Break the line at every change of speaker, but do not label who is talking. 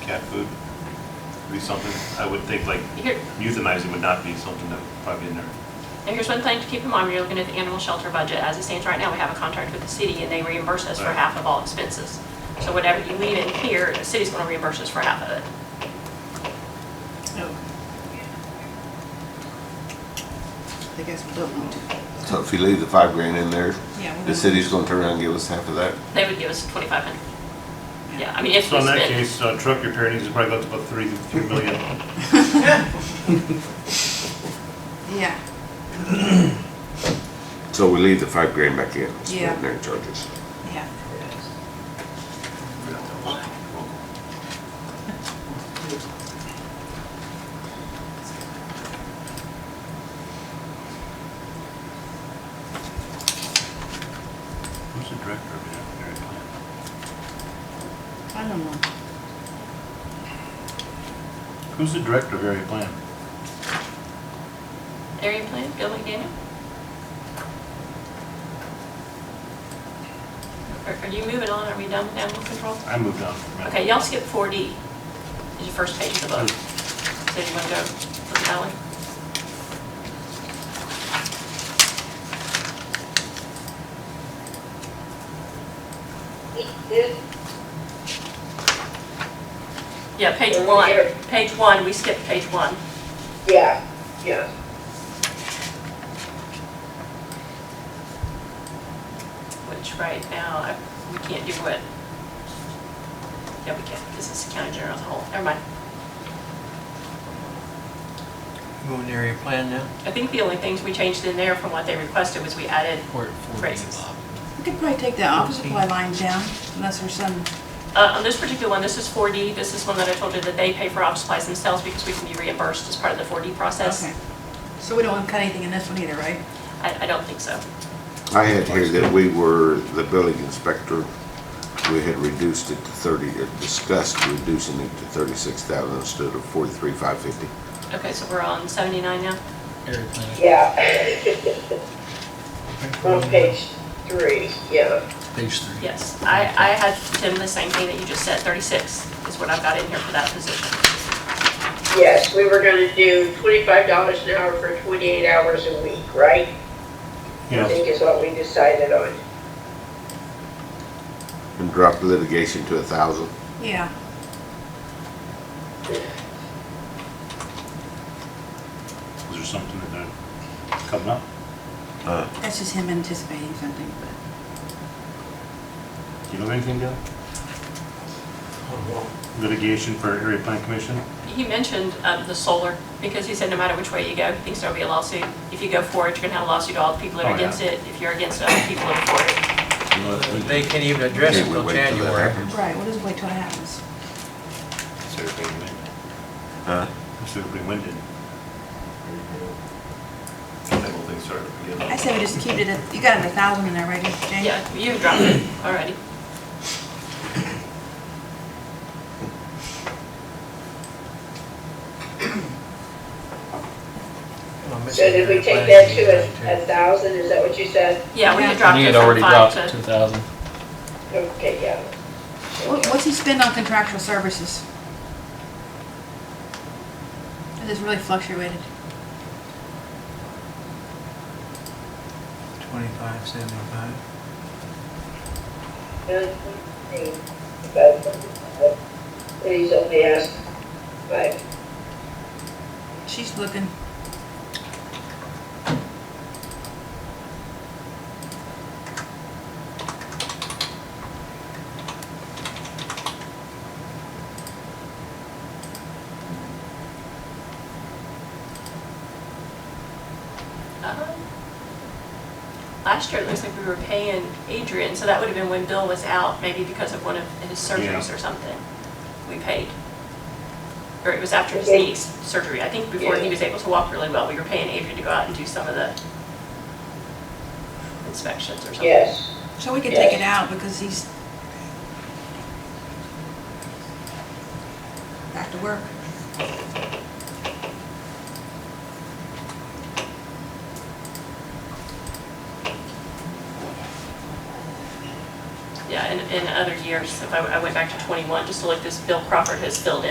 cat food would be something, I would think like
Here,
euthanizing would not be something that would probably in there.
and here's one thing to keep in mind, when you're looking at the animal shelter budget, as it stands right now, we have a contract with the city and they reimburse us for
Right.
half of all expenses. So whatever you leave in here, the city's gonna reimburse us for half of it.
I guess we don't want to.
So if you leave the five grand in there,
Yeah, we're
the
gonna-
city's gonna turn around and give us half of that?
They would give us twenty-five hundred. Yeah, I mean, if
So
we
in that
spend,
case, uh, truck repair needs to probably go up to about three, three million.
Yeah,
So we leave the five grand back in, it's
Yeah.
in their charges.
yeah.
Who's the director of the veterinary plant?
I don't know.
Who's the director of area plan?
area plan, Bill McDaniel? Are- Are you moving on? Are we done with animal control?
I moved on from that.
Okay, y'all skip 4D, is your first page of the book.
Hmm.
So you want to go look at that one? Yeah, page
Over
one,
here.
page one, we skipped page one.
Yeah, yeah.
which right now, I- we can't do it. Yeah, we can, because it's county general as a whole, never mind.
Going to area plan now?
I think the only things we changed in there from what they requested was we added,
Or at 4D,
Raises.
Bob?
We could probably take the office supply line down unless there's some,
uh, on this particular one, this is 4D, this is one that I told you that they pay for office supplies themselves because we can be reimbursed as part of the 4D process.
okay. So we don't want to cut anything in this one either, right?
I, I don't think so.
I had here that we were, the building inspector, we had reduced it to thirty, or discussed reducing it to thirty-six thousand instead of forty-three, five fifty.
Okay, so we're on 79 now?
Area plan.
Yeah. On page three, yeah.
Page three.
Yes, I, I had, Tim, the same thing that you just said, 36 is what I've got in here for that position.
Yes, we were gonna do twenty-five dollars an hour for twenty-eight hours a week, right? I
Yeah,
think is what we decided on.
And dropped litigation to a thousand.
Yeah.
is there something that, uh, coming up?
That's just him anticipating something, but
Do you know anything, Dale? Litigation for area plan commission?
He mentioned um, the solar, because he said no matter which way you go, he thinks there'll be a lawsuit. If you go for it, you're gonna have a lawsuit, all the people that
Oh,
are
yeah.
against it, if you're against it, other people are for it.
They can't even address it
Can't we
till
wait till that
January.
happens?
right, we'll just wait till it happens.
Is everybody winded?
Huh?
Is everybody winded? That whole thing started to get
I say we just keep it at, you got it a thousand in there, right, Jane?
Yeah, you dropped it already.
Well, I'm
So did we
missing
take
area
that
plan
to a, a
too.
thousand, is that what you said?
Yeah, we
Yeah.
had dropped
We
it
had
from
already
five
dropped it
to,
to 2,000.
Okay, yeah.
What- What's he spend on contractual services? It has really fluctuated.
Twenty-five, seventy-five.
And he's only asked five.
She's looking.
uh, last year, it looks like we were paying Adrian, so that would have been when Bill was out, maybe because of one of his surgeries
Yeah.
or something. We paid. Or it was after his
Okay.
knee surgery. I think before he
Yeah.
was able to walk really well, we were paying Adrian to go out and do some of the inspections or something.
Yes,
So we could take it out because he's back to work.
Yeah, that in, in other years. If I, I went back to twenty-one, just to look, this Bill Crawford has filled in